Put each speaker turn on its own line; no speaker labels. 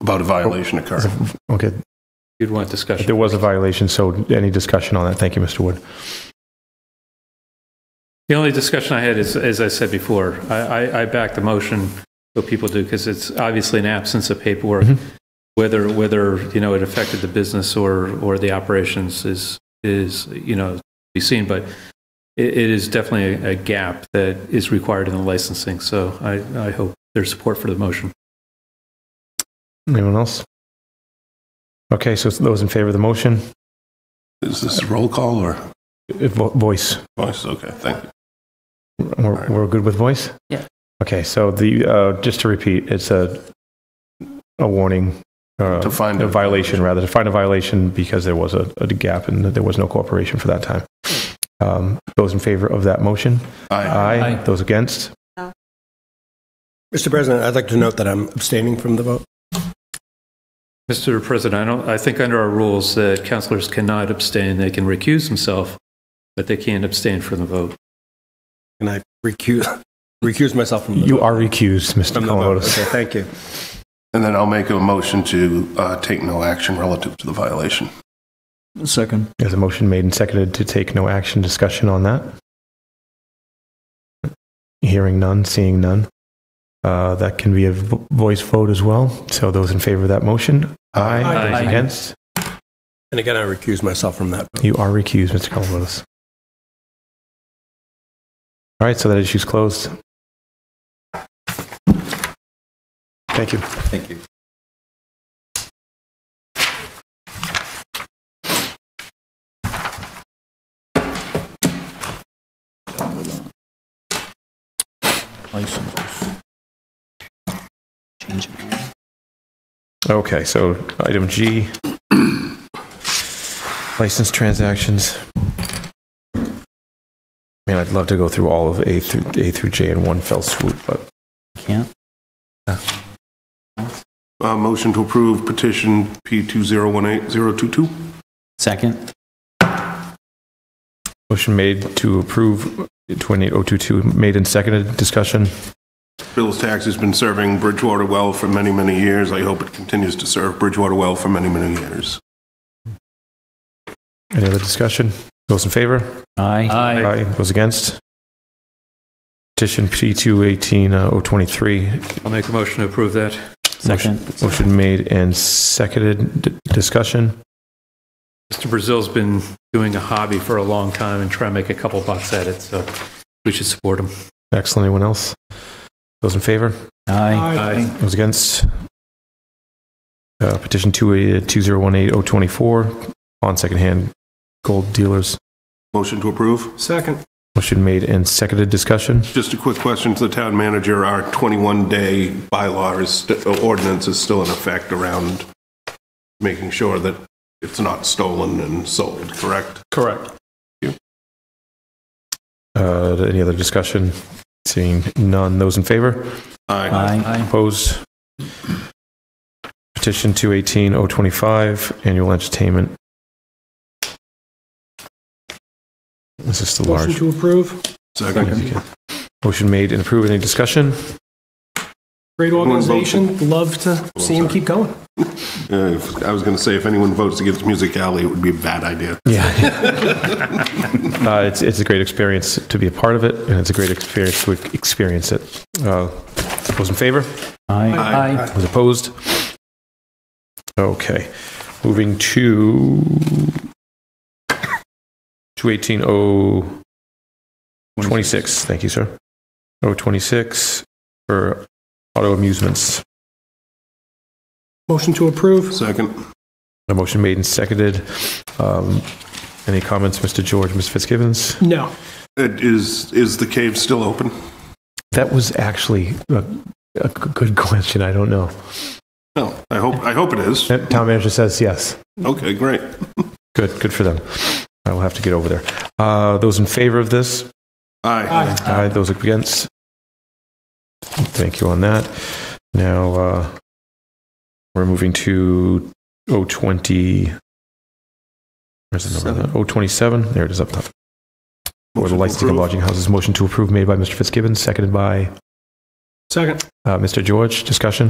about a violation occurred.
Okay,
You'd want discussion.
there was a violation, so any discussion on that? Thank you, Mr. Wood.
The only discussion I had is, as I said before, I, I, I back the motion, what people do, because it's obviously an absence of paperwork. Whether, whether, you know, it affected the business or, or the operations is, is, you know, to be seen, but it, it is definitely a, a gap that is required in the licensing, so I, I hope there's support for the motion.
Anyone else? Okay, so those in favor of the motion,
Is this a roll call or
uh, vo- voice.
voice? Okay, thank you.
We're, we're good with voice?
Yeah.
Okay, so the, uh, just to repeat, it's a, a warning. uh,
To find
A
a
violation, rather, to find a violation because there was a, a gap and that there was no cooperation for that time. Um, Those in favor of that motion?
Aye.
Aye. Those against?
Mr. President, I'd like to note that I'm abstaining from the vote.
Mr. President, I don't, I think under our rules that counselors cannot abstain, they can recuse themselves, but they can't abstain from the vote.
Can I recuse, recuse myself from the vote?
You are recused, Mr.
From the vote.
Columbotus.
Okay, thank you.
And then I'll make a motion to uh, take no action relative to the violation.
Second.
There's a motion made and seconded to take no action. Discussion on that? Hearing none, seeing none. Uh, That can be a vo- voice vote as well. So those in favor of that motion?
Aye.
Those
Aye.
against?
And again, I recuse myself from that. vote.
You are recused, Mr. Columbus. All right, so that issue's closed. Thank you.
Thank you.
Licenses. Change it.
Okay, so item G, license transactions. Man, I'd love to go through all of A through, A through J in one fell swoop, but
Can't.
Uh, Motion to approve petition P2018022.
Second.
motion made to approve 28022, made and seconded, discussion.
Bill's Tax has been serving Bridgewater well for many, many years. I hope it continues to serve Bridgewater well for many, many years.
Any other discussion? Those in favor?
Aye. Aye.
Aye. Those against? Petition uh, P218-023.
I'll make a motion to approve that.
Second.
Motion made and seconded. D- Discussion?
Mr. Brazil's been doing a hobby for a long time and trying to make a couple bucks at it, so we should support him.
Excellent. Anyone else? Those in favor?
Aye.
Aye.
Those against? Uh, Petition 2018024 on secondhand gold dealers.
Motion to approve.
Second.
Motion made and seconded. Discussion?
Just a quick question to the town manager. Our 21-day bylaw is, st- uh, ordinance is still in effect around making sure that it's not stolen and sold, correct?
Correct.
Uh, Any other discussion? Seeing none. Those in favor?
Aye.
Aye.
Opposed? Petition 218-025, annual entertainment. This is the large.
to approve.
Second.
Motion made and approved. Any discussion?
Great
organization.
Love to
see 'em
keep going.
Uh, if- I was going to say, if anyone votes against Music Alley, it would be a bad idea.
Yeah. Uh, It's, it's a great experience to be a part of it, and it's a great experience to experience it. Uh, Those in favor?
Aye.
Those opposed? Okay, moving to 218-026, thank you, sir. 026 for auto amusements.
Motion to approve.
Second.
A motion made and seconded. Um, Any comments, Mr. George, Ms. Fitzgibbons?
No.
It Is, is the cave still open?
That was actually a a g- good question, I don't know.
No, I hope, I hope it is.
Uh, Town manager says yes.
Okay, great.
Good, good for them. I will have to get over there. Uh, Those in favor of this?
Aye.
Aye, those against? Thank you on that. Now, uh, we're moving to 020, where's the number? of that? 027, there it is up top. For
Motion to
the licensing of
approve.
lodging houses, motion to approve made by Mr. Fitzgibbon, seconded by
Second.
uh, Mr. George. Discussion?